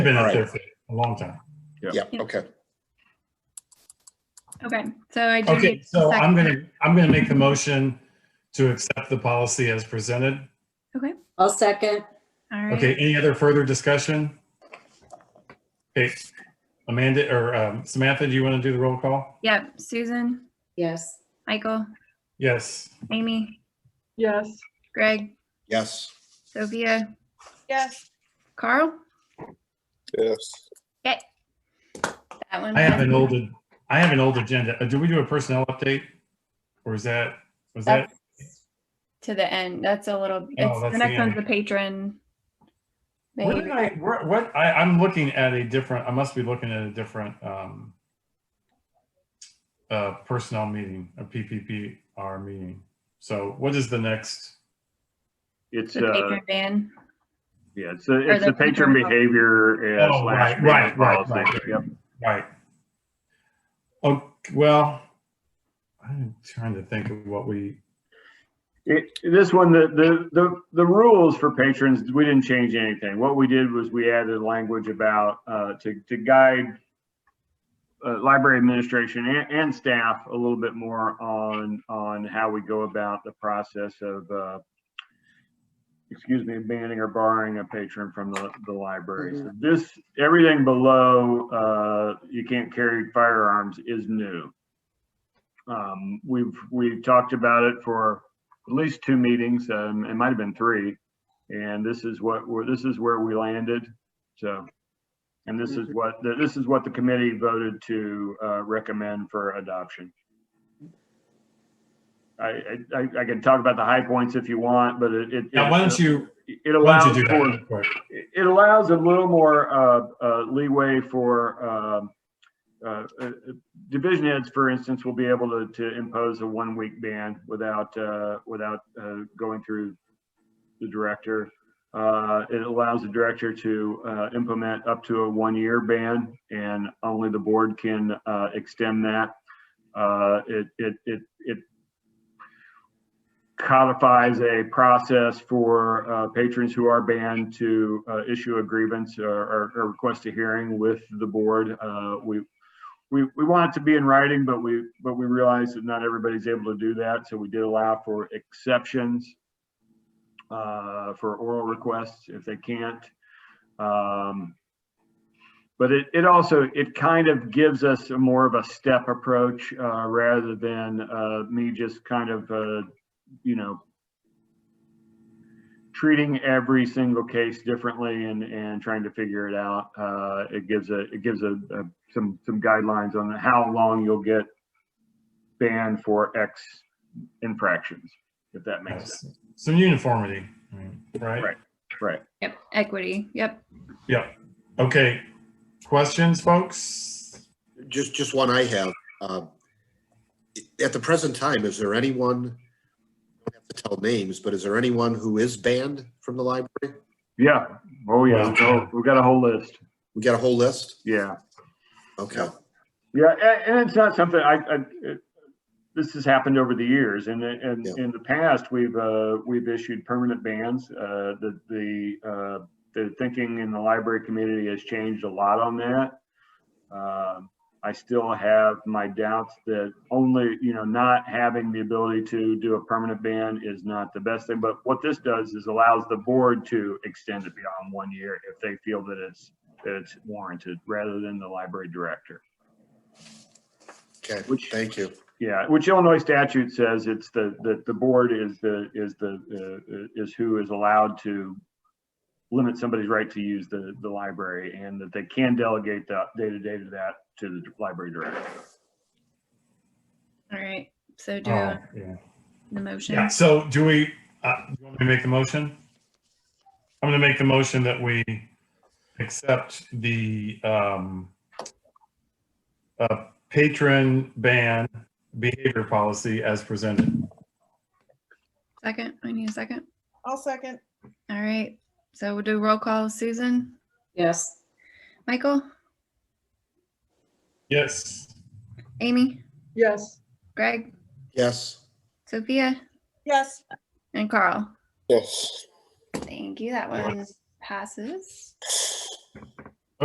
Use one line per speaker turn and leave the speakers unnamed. Been
All
up
right.
there for a long time.
Yeah, okay.
Okay, so I do.
Okay,
get
so I'm
second.
gonna, I'm gonna make the motion to accept the policy as presented.
I'll second.
All
Okay,
right,
any other further discussion? Okay, Amanda or um, Samantha, do you want to do the roll call?
yep, Susan,
Yes.
Michael,
Yes,
Amy,
Yes.
Greg,
Yes.
Sophia,
Yes.
Carl,
Yes.
that one.
I have an
passed.
old, I have an old agenda. Uh, Do we do a personnel update? Or is that, was that, Oh,
To the end, that's a little,
that's
it's,
the
the next one's
end.
the patron.
what did
They-
I, where- what, I, I'm looking at a different, I must be looking at a different um uh, personnel meeting, a PPPR meeting. So what is the next?
It's,
The
uh,
patron ban,
yeah, it's, a- it's
the
the patron
patron-
behavior uh,
Oh,
slash.
right, right,
payment
right,
policy.
right.
Yep.
Right. Oh, well, I'm trying to think of what we,
It- This one, the, the, the, the rules for patrons, we didn't change anything. What we did was we added language about, uh, to, to guide uh, library administration and, and staff a little bit more on, on how we go about the process of, uh, excuse me, banning or barring a patron from the, the library. So this, everything below, uh, you can't carry firearms is new. Um, we've, we've talked about it for at least two meetings, um, it might have been three. And this is what, we're- this is where we landed, so. And this is what, this is what the committee voted to, uh, recommend for adoption. I, I- I, I can talk about the high points if you want, but it, it.
now, why don't you,
It
why don't
allows
you do that?
for
real quick?
it it allows a little more uh, uh, leeway for um, uh, uh, division heads, for instance, will be able to, to impose a one-week ban without, uh, without uh, going through the director. Uh, It allows the director to uh, implement up to a one-year ban, and only the board can uh, extend that. Uh, It, it, it, it codifies a process for uh, patrons who are banned to uh, issue a grievance or- or, or request a hearing with the board. Uh, We, we, we want it to be in writing, but we, but we realize that not everybody's able to do that, so we did allow for exceptions uh, for oral requests if they can't. Um, But it, it also, it kind of gives us a more of a step approach uh, rather than uh, me just kind of uh, you know, treating every single case differently and, and trying to figure it out. Uh, it gives a, it gives a, a, some, some guidelines on how long you'll get banned for X infractions, if that makes sense.
Some uniformity, I mean, right?
Right. Right.
Yep, equity, yep.
Okay, questions, folks?
Just, just one I have. um, At the present time, is there anyone, I don't have to tell names, but is there anyone who is banned from the library?
Yeah. Oh, yeah.
Wow.
We've got a whole list.
We got a whole list?
Yeah.
Okay.
Yeah, a- and it's not something I, I, it- this has happened over the years and, and
Yeah.
in the past, we've, uh, we've issued permanent bans. Uh, the, the, uh, the thinking in the library community has changed a lot on that. Um, I still have my doubts that only, you know, not having the ability to do a permanent ban is not the best thing. But what this does is allows the board to extend it beyond one year if they feel that it's, that it's warranted rather than the library director.
Okay,
Which-
thank you.
Yeah, which Illinois statute says it's the, that the board is the, is the, uh, is who is allowed to limit somebody's right to use the, the library and that they can delegate that day-to-day to that to the library director.
All right, so do
Oh,
uh,
yeah.
the motion.
Yeah, so do we, uh, do you want me to make the motion? I'm gonna make the motion that we accept the, um, uh, patron ban behavior policy as presented.
Second, I need a second.
I'll second.
All right, so we'll do roll call. Susan,
Yes.
Michael,
Yes.
Amy,
Yes.
Greg,
Yes.
Sophia,
Yes.
and Carl.
Yes.
Thank you. That
Right.
one passes.